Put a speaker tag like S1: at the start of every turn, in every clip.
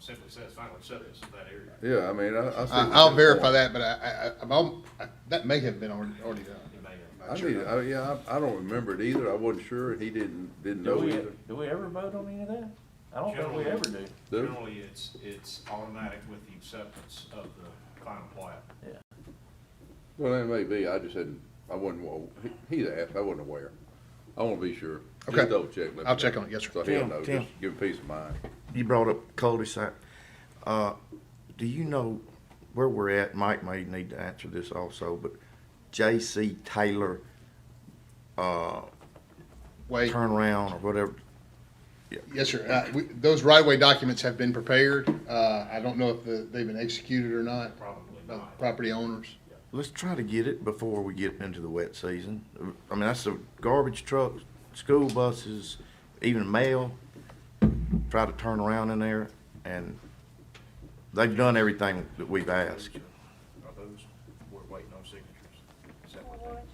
S1: simply says final acceptance of that area.
S2: Yeah, I mean, I, I. see
S3: I,
S2: what
S3: I'll
S2: you're
S3: verify
S2: saying.
S3: that, but I, I, I'm, al- I- that may have been already, already done.
S1: It may not.
S2: I need, I, yeah, I, I don't remember it either. I wasn't sure. He didn't, didn't
S4: Do
S2: know
S4: we,
S2: either.
S4: do we ever vote on any of that? I don't think we ever do.
S2: Do?
S1: Generally, it's, it's automatic with the acceptance of the final plat.
S2: Well, that may be. I just hadn't, I wasn't, wa- he, he asked. I wasn't aware. I wanna be sure. Just
S3: Okay.
S2: Double check. let me
S3: I'll check
S2: know.
S3: on it, yes, sir.
S2: So he'll
S5: Tim,
S2: know,
S5: Tim.
S2: just give him peace of mind.
S5: You brought up cul-de-sac. Uh, do you know where we're at? Mike may need to answer this also, but J.C. Taylor
S3: Wait,
S5: turnaround or whatever.
S3: yes, sir. Uh, we, those right-of-way documents have been prepared. Uh, I don't know if the, they've been executed or not
S1: Probably
S3: by the
S1: not.
S3: property owners.
S5: Let's try to get it before we get into the wet season. I mean, that's the garbage trucks, school buses, even mail. Try to turn around in there and they've done everything that we've asked.
S1: Are those, we're waiting on signatures. Is that what
S6: What?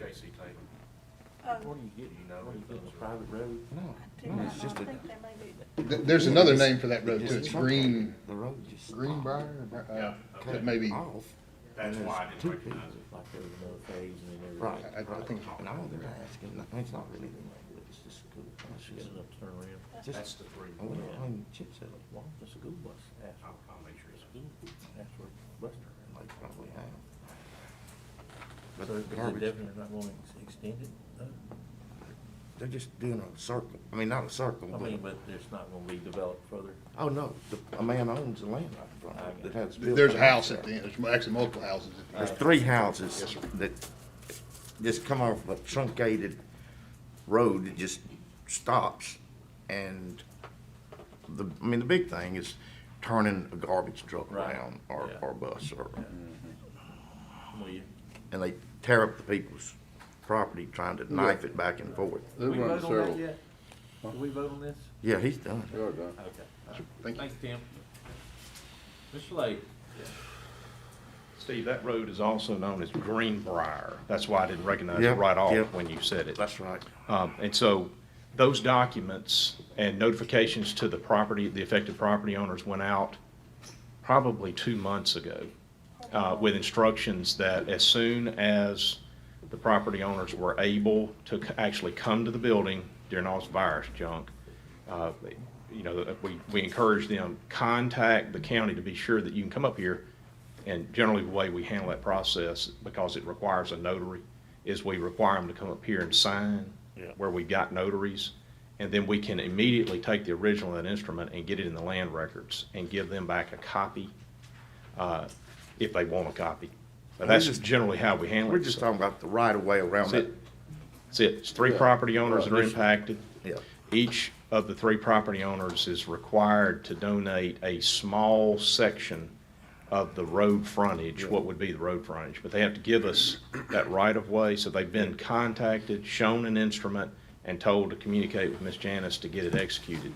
S1: they, J.C. Taylor,
S4: Where do you get,
S1: you know
S4: where do you
S1: if
S4: get the
S1: those are-
S4: private road?
S6: I do not think they may be.
S3: Th- There's another name for that road too. It's Green,
S5: The road just.
S3: Greenbrier, or, uh,
S1: Yeah, okay.
S3: that may be, I,
S5: Off.
S1: that's
S5: And
S1: why I didn't
S5: there's two
S1: recognize it.
S4: Like there was another phase and then everything.
S5: Right.
S3: I think,
S5: And all they're asking, I mean, it's not really, them, it's just school buses.
S4: Get enough turnaround.
S1: That's
S5: Just,
S1: the three.
S5: I
S1: I'll,
S5: wonder how many chips that
S4: Why the school bus ask for
S1: I'll make sure it's.
S4: school? That's where bus turnaround.
S5: they probably have.
S4: So
S5: But
S4: is it
S5: garbage,
S4: definitely not going to extend it? though?
S5: they're just doing a circle, I mean, not a circle,
S4: I mean,
S5: but,
S4: but it's not gonna be developed further.
S5: oh, no, the, a man owns the land right in front of it that has. built
S3: there's a
S5: there.
S3: house at the end. There's actually multiple houses at the end.
S5: There's three houses that just come off a truncated road that just stops. And the, I mean, the big thing is turning a garbage truck
S4: Right.
S5: around or,
S4: Yeah.
S5: or bus or,
S4: Will you?
S5: and they tear up the people's property trying to knife it back and forth.
S2: They're
S4: We
S2: running
S4: vote on that
S2: several.
S4: yet? Did we vote on this?
S5: Yeah, he's done.
S2: They are done.
S4: Okay. all right.
S3: Thank you.
S4: Thanks, Tim. Mr. Lake,
S1: Steve, that road is also known as Greenbrier. That's why I didn't recognize it
S5: Yeah,
S1: right
S5: yeah.
S1: off when you said it.
S5: That's right.
S1: Um, And so those documents and notifications to the property, the affected property owners went out probably two months ago uh, with instructions that as soon as the property owners were able to c- actually come to the building during all this virus junk, uh, you know, we, we encourage them, contact the county to be sure that you can come up here. And generally, the way we handle that process, because it requires a notary, is we require them to come up here and sign
S5: Yeah.
S1: where we've got notaries. And then we can immediately take the original and instrument and get it in the land records and give them back a copy, uh, if they want a copy. But
S5: We're
S1: that's
S5: just-
S1: generally how we handle it.
S5: We're just talking about the right of way around
S1: That's
S5: that.
S1: it. That's it. It's three property owners that are impacted.
S5: Yeah.
S1: Each of the three property owners is required to donate a small section of the road frontage, what would be the road frontage, but they have to give us that right of way, so they've been contacted, shown an instrument, and told to communicate with Ms. Janice to get it executed.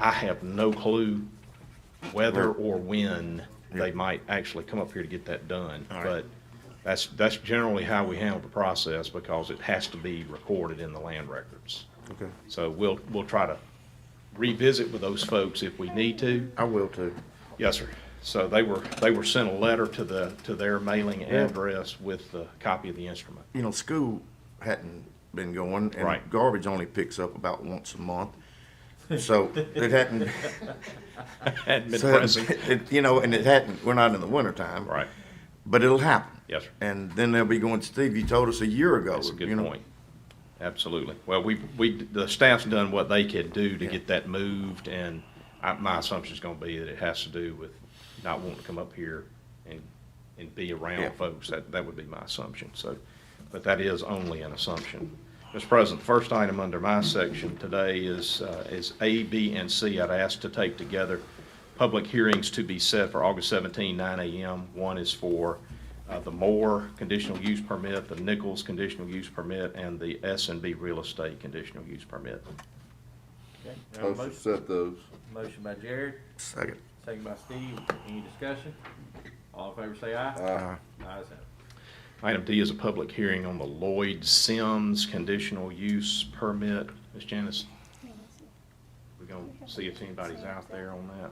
S1: I have no clue whether or when they might actually come up here to get that done.
S5: All right.
S1: But that's, that's generally how we handle the process because it has to be recorded in the land records.
S5: Okay.
S1: So we'll, we'll try to revisit with those folks if we need to.
S5: I will too.
S1: Yes, sir. So they were, they were sent a letter to the, to their mailing address with the copy of the instrument.
S5: you know, school hadn't been going, and
S1: Right.
S5: garbage only picks up about once a month. So it hadn't,
S1: Hadn't been
S5: so
S1: pressing.
S5: it, you know, and it hadn't. We're not in the wintertime,
S1: Right.
S5: But it'll happen.
S1: Yes, sir.
S5: And then they'll be going, Steve, you told us a year ago.
S1: That's a
S5: you
S1: good
S5: know.
S1: point. Absolutely. Well, we, we, the staff's done what they could do to get that moved, and I, my assumption's gonna be that it has to do with not wanting to come up here and, and be
S5: Yeah.
S1: around folks. That, that would be my assumption, so, but that is only an assumption. Mr. President, first item under my section today is, uh, is A, B, and C. I'd ask to take together public hearings to be set for August 17, 9 a.m. One is for uh, the Moore conditional use permit, the Nichols conditional use permit, and the S and B real estate conditional use permit.
S4: okay, we have a
S2: Supposed to
S4: motion,
S2: set those.
S4: motion by Jared,
S5: Second.
S4: second by Steve, any discussion? All in favor say aye.
S5: Uh,
S4: Ayes have it.
S1: Item D is a public hearing on the Lloyd Sims conditional use permit. Ms. Janice, we're going to see if anybody's out there on that.